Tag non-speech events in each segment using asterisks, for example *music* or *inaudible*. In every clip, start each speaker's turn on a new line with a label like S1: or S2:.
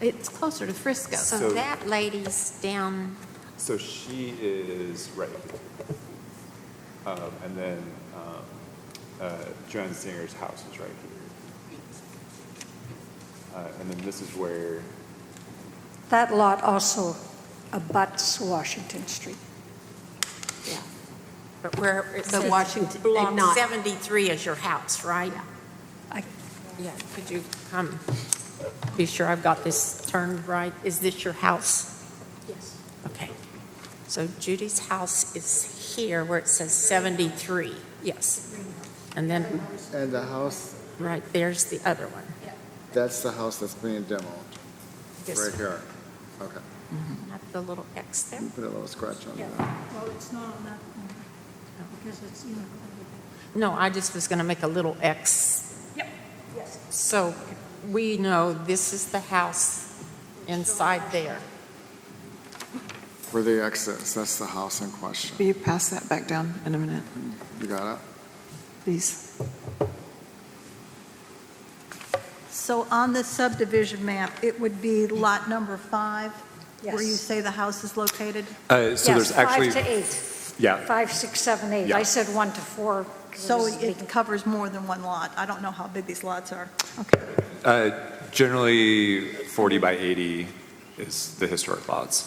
S1: It's closer to Frisco.
S2: So
S1: So-
S2: that lady's down,
S3: So she is right. Um, and then um, uh, Joanne Zinger's house is right here. Uh, and then this is where,
S4: That lot also abuts Washington Street.
S2: yeah. But where it
S5: But
S2: says.
S5: Washington-
S2: Block
S5: not-
S2: 73 is your house, right?
S4: I-
S2: Yeah, could you come, be sure I've got this turned right? Is this your house?
S5: Yes.
S2: Okay. So Judy's house is here where it says 73, yes. And then,
S6: And the house,
S2: right, there's the other one.
S6: that's the house that's being demoed,
S2: This
S6: right
S2: one.
S6: here. Okay,
S2: Not the little X there?
S6: put a little scratch on
S7: Yeah,
S6: that.
S7: well, it's not on that corner, because it's, you know,
S2: No, I just was going to make a little X.
S7: Yep. Yes.
S2: So we know this is the house inside there.
S6: For the exits, that's the house in question.
S8: Will you pass that back down in a minute,
S6: You got it?
S8: please?
S7: So on the subdivision map, it would be lot number five, where you
S4: Yes.
S7: say the house is located?
S3: uh, so there's
S4: Yes,
S3: actually,
S4: Five to eight.
S3: yeah,
S4: Five, six, seven, eight.
S3: Yeah.
S4: I said one to four. 'cause it
S7: So
S4: was
S7: it
S4: big.
S7: covers more than one lot. I don't know how big these lots are. Okay.
S3: uh, generally 40 by 80 is the historic lots.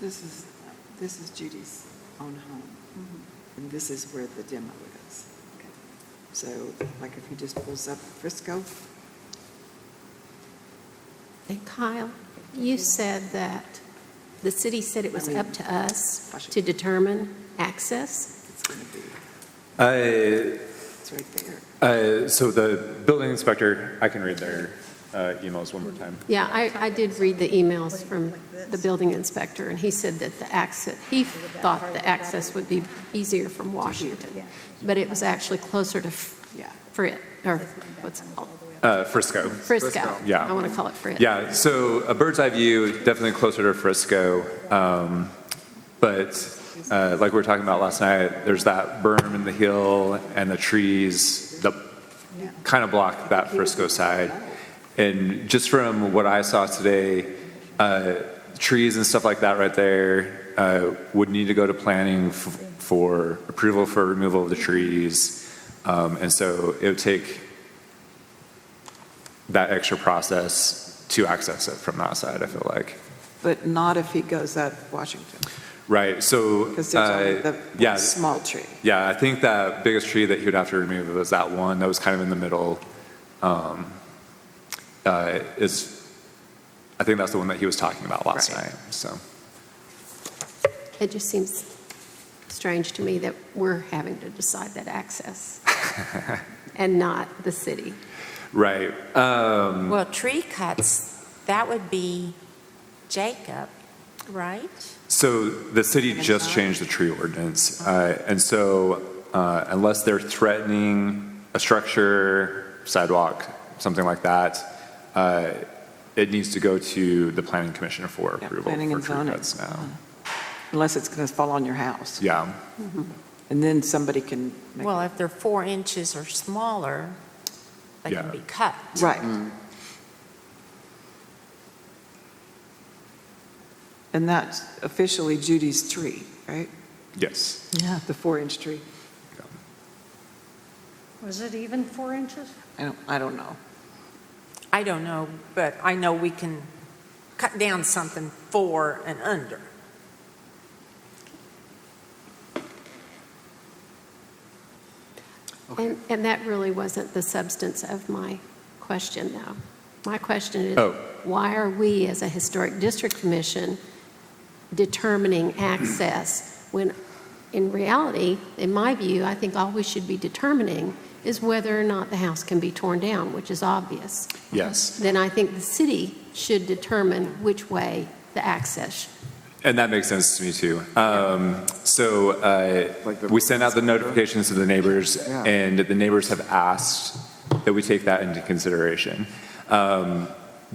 S8: This is, this is Judy's own home, and this is where the demo is. So, like, if he just pulls up Frisco,
S5: And Kyle,
S1: You said that the city said it was up to us to determine access.
S8: it's going to be,
S3: Uh,
S8: it's right there.
S3: Uh, So the building inspector, I can read their uh, emails one more time.
S1: Yeah, I, I did read the emails from the building inspector, and he said that the access, he thought the access would be easier from Washington, but it was actually closer to
S8: Yeah.
S1: Frit, or what's it called?
S3: Uh, Frisco.
S1: Frisco.
S3: Yeah.
S1: I want to call it Frit.
S3: Yeah, so a bird's eye view, definitely closer to Frisco. um, But uh, like we were talking about last night, there's that berm in the hill and the trees that kind of block that Frisco side. And just from what I saw today, uh, trees and stuff like that right there uh, would need to go to planning f- for approval for removal of the trees. Um, And so it would take that extra process to access it from that side, I feel like.
S8: But not if he goes up Washington,
S3: Right, so,
S8: because there's only
S3: uh,
S8: the
S3: yeah,
S8: one small tree.
S3: yeah, I think that biggest tree that he would have to remove was that one that was kind of in the middle. Um, uh, Is, I think that's the one that he was talking about last
S8: Right.
S3: night, so.
S1: It just seems strange to me that we're having to decide that access
S3: *laughs*
S1: and not the city.
S3: Right, um,
S2: Well, tree cuts, that would be Jacob, right?
S3: so the city just changed the tree ordinance. uh, And so uh, unless they're threatening a structure, sidewalk, something like that, uh, it needs to go to the planning commission for
S8: Yeah,
S3: approval
S8: Planning
S3: for
S8: and
S3: tree
S8: zoning.
S3: cuts now.
S8: Unless it's going to fall on your house,
S3: Yeah.
S8: and then somebody can make,
S2: Well, if they're four inches or smaller, they
S3: Yeah.
S2: can be cut.
S8: right. And that's officially Judy's tree, right?
S3: Yes.
S8: Yeah. The four-inch tree.
S4: Was it even four inches?
S8: I don't, I don't know.
S2: I don't know, but I know we can cut down something four and under.
S1: And, and that really wasn't the substance of my question, though. My question
S3: Oh.
S1: is, why are we, as a historic district commission, determining access when, in reality, in my view, I think all we should be determining is whether or not the house can be torn down, which is obvious.
S3: Yes.
S1: Then I think the city should determine which way the access
S3: And that makes sense to me too. Um, so uh,
S6: Like the-
S3: we sent out the notifications to the neighbors,
S6: Yeah.
S3: and the neighbors have asked that we take that into consideration. Um,